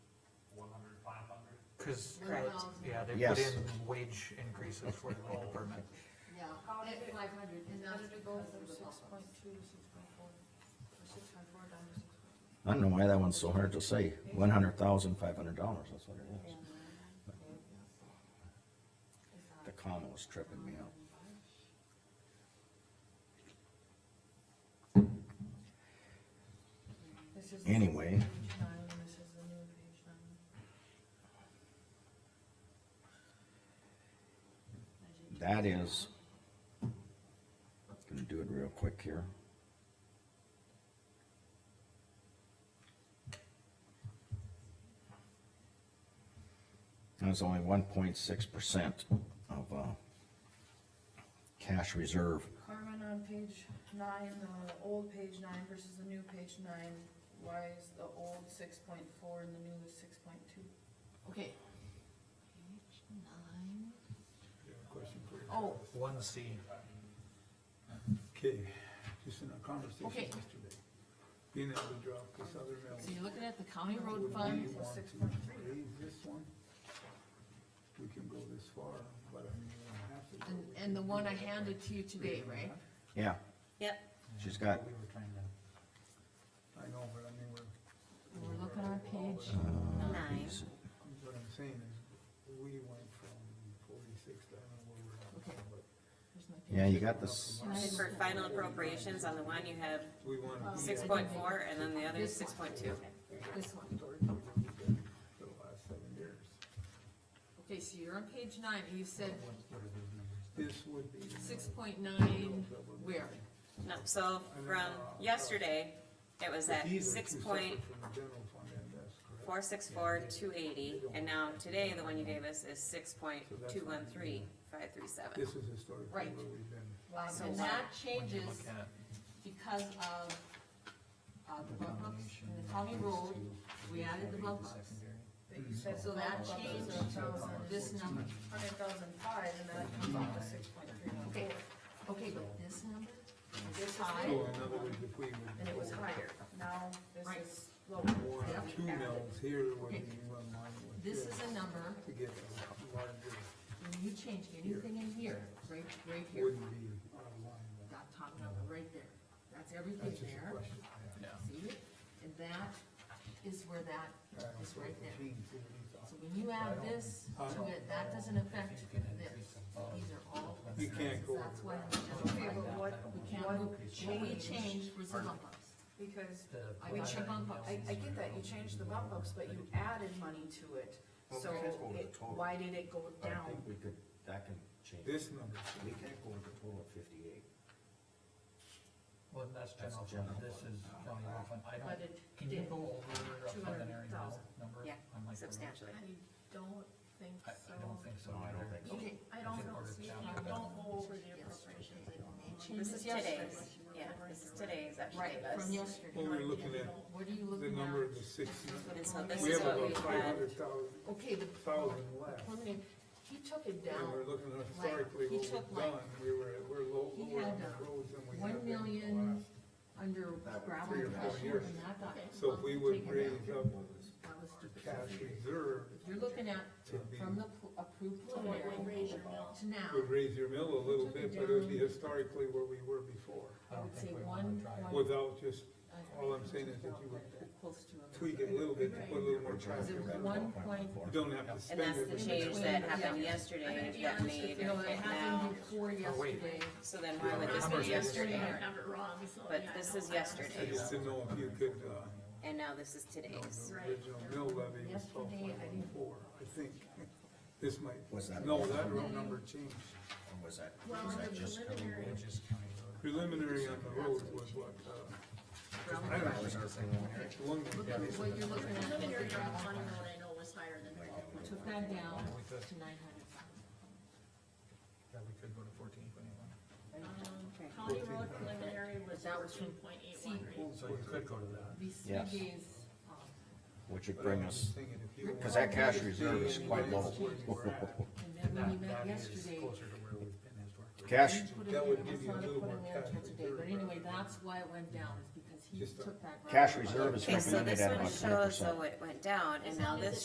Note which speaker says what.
Speaker 1: Cause,
Speaker 2: Correct.
Speaker 1: yeah, they put
Speaker 3: Yes.
Speaker 1: in wage increases for the whole department.
Speaker 4: Yeah, at five hundred, and
Speaker 2: How
Speaker 4: that's
Speaker 2: did we go
Speaker 4: because
Speaker 2: from
Speaker 4: of the
Speaker 2: six
Speaker 4: bump
Speaker 2: point
Speaker 4: ups.
Speaker 2: two to six point four? Or six point four down to six point?
Speaker 3: I don't know why that one's so hard to say, one hundred thousand, five hundred dollars, that's what it is. The comma was tripping me out.
Speaker 2: This is
Speaker 3: Anyway.
Speaker 2: page nine, and this is the new page nine.
Speaker 3: That is, gonna do it real quick here. That's only one point six percent of, uh, cash reserve.
Speaker 2: Carmen, on page nine, the old page nine versus the new page nine, why is the old six point four and the new is six point two?
Speaker 4: Okay. Page nine. Oh.
Speaker 1: One C,
Speaker 5: Okay, just in a conversation
Speaker 4: Okay.
Speaker 5: yesterday, being able to drop this other mill.
Speaker 4: So you're looking at the county
Speaker 5: would
Speaker 4: road
Speaker 5: we
Speaker 4: fund,
Speaker 5: want to
Speaker 2: 6.3.
Speaker 5: Raise this one, we can go this far, but I mean, we don't have to. go.
Speaker 4: and,
Speaker 5: We
Speaker 4: and the
Speaker 5: can
Speaker 4: one
Speaker 5: do
Speaker 4: I
Speaker 5: that
Speaker 4: handed to you
Speaker 5: way.
Speaker 4: today, right?
Speaker 3: Yeah,
Speaker 6: Yep,
Speaker 3: she's got,
Speaker 1: we were trying to,
Speaker 5: I know, but I mean, we're,
Speaker 4: We're looking on page
Speaker 6: nine.
Speaker 4: nine.
Speaker 3: uh,
Speaker 5: what I'm saying is, we went from forty-six, I don't know where we're
Speaker 4: Okay.
Speaker 5: at, but
Speaker 4: Here's my page.
Speaker 3: yeah, you got this,
Speaker 6: And for final appropriations, on the one you have
Speaker 5: we want to
Speaker 4: Um,
Speaker 5: be
Speaker 6: six
Speaker 5: at
Speaker 6: point four, and then the other is six point two.
Speaker 4: This one.
Speaker 5: the last seven years.
Speaker 4: Okay, so you're on page nine, you said
Speaker 1: what, what are those numbers?
Speaker 5: This would be.
Speaker 4: six point nine, where?
Speaker 6: No, so from yesterday, it was at
Speaker 5: These are
Speaker 6: six
Speaker 5: two
Speaker 6: point
Speaker 5: separate from the general fund, and that's correct.
Speaker 6: four six four two eighty, and now today, the one you gave us is six point two one three five three seven.
Speaker 5: This is historically where
Speaker 4: Right.
Speaker 5: we've been.
Speaker 6: So what-
Speaker 4: And that
Speaker 1: When you
Speaker 4: changes
Speaker 1: look at
Speaker 4: because of, uh, the bump ups in the county road, we added the bump ups. So that changed this number.
Speaker 2: Hundred thousand five, and that comes out to six point three one
Speaker 4: Okay,
Speaker 2: four,
Speaker 4: okay, but this number, this
Speaker 5: So
Speaker 4: high,
Speaker 5: in other words, if we would.
Speaker 2: and it was higher, now this
Speaker 4: Right.
Speaker 2: is lower.
Speaker 5: One,
Speaker 4: Yeah.
Speaker 5: two mills here would be
Speaker 4: Okay.
Speaker 5: one line with
Speaker 4: this
Speaker 5: this
Speaker 4: is a number,
Speaker 5: to get a larger,
Speaker 4: when you change anything in here, right, right here,
Speaker 5: wouldn't be out of line. but
Speaker 4: that top number right there, that's everything
Speaker 5: That's just a
Speaker 4: there,
Speaker 5: question. yeah.
Speaker 4: see it? And that is where that
Speaker 5: I don't
Speaker 4: is
Speaker 5: think
Speaker 4: right
Speaker 5: the
Speaker 4: there.
Speaker 5: team did these.
Speaker 4: So when you add this to it, that doesn't affect this, these are all.
Speaker 5: You can't go
Speaker 4: That's why.
Speaker 2: Okay, but what,
Speaker 4: We can't,
Speaker 2: what
Speaker 4: move- what we changed was the bump ups.
Speaker 2: because
Speaker 4: We took bump ups.
Speaker 2: I, I get that, you changed the bump ups, but you added money to it, so it, why did it go down?
Speaker 3: we could, that can change.
Speaker 5: This number,
Speaker 3: We can't go with a total of fifty-eight.
Speaker 1: Well, that's
Speaker 3: That's
Speaker 1: general
Speaker 3: general
Speaker 1: fund, this
Speaker 3: fund.
Speaker 1: is county road fund, I
Speaker 2: But
Speaker 1: don't,
Speaker 2: it
Speaker 1: can you
Speaker 2: did,
Speaker 1: go over a preliminary
Speaker 2: 200,000.
Speaker 1: number?
Speaker 6: Yeah,
Speaker 1: on like the road?
Speaker 6: substantially.
Speaker 2: I don't think
Speaker 1: I,
Speaker 2: so.
Speaker 1: I don't think so.
Speaker 3: No, I don't
Speaker 1: either.
Speaker 3: think so.
Speaker 4: Okay,
Speaker 1: I
Speaker 2: I don't
Speaker 1: think
Speaker 2: know,
Speaker 1: we're
Speaker 2: see,
Speaker 1: down
Speaker 2: I
Speaker 1: to
Speaker 2: don't
Speaker 1: that.
Speaker 2: go over the appropriations, I don't know.
Speaker 6: This is today's, yeah, this is today's that she
Speaker 4: Right,
Speaker 6: gave us.
Speaker 4: from yesterday.
Speaker 5: when we're looking at
Speaker 4: What are you
Speaker 5: the
Speaker 4: looking
Speaker 5: number of the
Speaker 4: at?
Speaker 5: six,
Speaker 6: And so this
Speaker 5: we
Speaker 6: is
Speaker 5: have
Speaker 6: what we
Speaker 5: about five
Speaker 6: had,
Speaker 5: hundred thousand,
Speaker 4: Okay, the
Speaker 5: thousand left.
Speaker 4: preliminary, he took it
Speaker 5: And
Speaker 4: down
Speaker 5: we're looking at
Speaker 4: like,
Speaker 5: historically
Speaker 4: he
Speaker 5: what
Speaker 4: took
Speaker 5: we've
Speaker 4: like-
Speaker 5: done, we were, we're low,
Speaker 4: He
Speaker 5: lower on
Speaker 4: had, uh,
Speaker 5: the roads than we
Speaker 4: one
Speaker 5: have been in the
Speaker 4: million-
Speaker 5: last.
Speaker 4: under gravel
Speaker 5: Three or
Speaker 4: and
Speaker 5: four
Speaker 4: crusher
Speaker 5: years.
Speaker 4: and that got.
Speaker 5: So if we would
Speaker 4: taken
Speaker 5: raise
Speaker 4: down.
Speaker 5: up
Speaker 4: That was
Speaker 5: our
Speaker 4: stupid.
Speaker 5: cash reserve
Speaker 4: You're looking at
Speaker 5: to be,
Speaker 4: from the pl- approved preliminary to now,
Speaker 5: would raise your mill a little bit, but it would be historically where we were before.
Speaker 1: I
Speaker 4: I
Speaker 1: don't
Speaker 4: would say
Speaker 1: think we wanna
Speaker 4: one,
Speaker 1: try it.
Speaker 4: one.
Speaker 5: Without just all I'm saying is that you would tweak it a little bit to put a little more
Speaker 4: Is
Speaker 5: traffic.
Speaker 4: it
Speaker 5: on it.
Speaker 4: one point?
Speaker 5: You don't have to
Speaker 6: and
Speaker 5: spend it.
Speaker 6: that's the
Speaker 5: but-
Speaker 6: change that happened yesterday that made
Speaker 4: No, it
Speaker 6: it now.
Speaker 4: happened before yesterday.
Speaker 6: So then why would this be yesterday? But this is
Speaker 5: I
Speaker 6: yesterday's,
Speaker 5: just didn't know if you could, uh,
Speaker 6: and now this is today's.
Speaker 5: the original mill levy was twelve
Speaker 4: Yesterday,
Speaker 5: point
Speaker 4: I
Speaker 5: one
Speaker 4: didn't-
Speaker 5: four, I think. This might,
Speaker 3: Was that-
Speaker 5: no, that round number changed.
Speaker 3: Or was that,
Speaker 2: Well,
Speaker 3: was that
Speaker 2: the
Speaker 3: just county
Speaker 2: preliminary-
Speaker 3: road?
Speaker 1: Which is county road.
Speaker 5: Preliminary on the road was what, uh, I don't know, the one,
Speaker 4: Look at what you're looking at. with the gravel.
Speaker 7: I know was higher than twelve
Speaker 4: We took that down
Speaker 1: Yeah, we could,
Speaker 4: to nine hundred thousand.
Speaker 1: yeah, we could go to fourteen twenty-one.
Speaker 6: Okay.
Speaker 7: County road preliminary was
Speaker 4: That was from-
Speaker 7: fourteen point eight one.
Speaker 1: So you could go to that.
Speaker 4: These three
Speaker 3: Yes.
Speaker 4: days, um,
Speaker 3: Which would
Speaker 5: but I
Speaker 3: bring
Speaker 5: was
Speaker 3: us,
Speaker 5: just thinking if you
Speaker 3: cause
Speaker 5: want-
Speaker 3: that cash reserve is quite low.
Speaker 4: and then when
Speaker 1: That-
Speaker 4: you
Speaker 1: that
Speaker 4: met
Speaker 1: is
Speaker 4: yesterday,
Speaker 1: Closer to where we've been historically.
Speaker 3: Cash,
Speaker 4: you put it
Speaker 5: That
Speaker 4: in,
Speaker 5: would
Speaker 4: it
Speaker 5: give
Speaker 4: was
Speaker 5: you a
Speaker 4: not
Speaker 5: little
Speaker 4: put
Speaker 5: more
Speaker 4: in there
Speaker 5: cash
Speaker 4: till today, but
Speaker 5: reserve.
Speaker 4: anyway, that's why it went down, is because he
Speaker 5: Just a-
Speaker 4: took that.
Speaker 3: cash
Speaker 4: gravel.
Speaker 3: reserve is
Speaker 6: Okay, so
Speaker 3: recommended
Speaker 6: this
Speaker 3: at
Speaker 6: one
Speaker 3: about ten
Speaker 6: shows
Speaker 3: percent.
Speaker 6: though it went down, and now this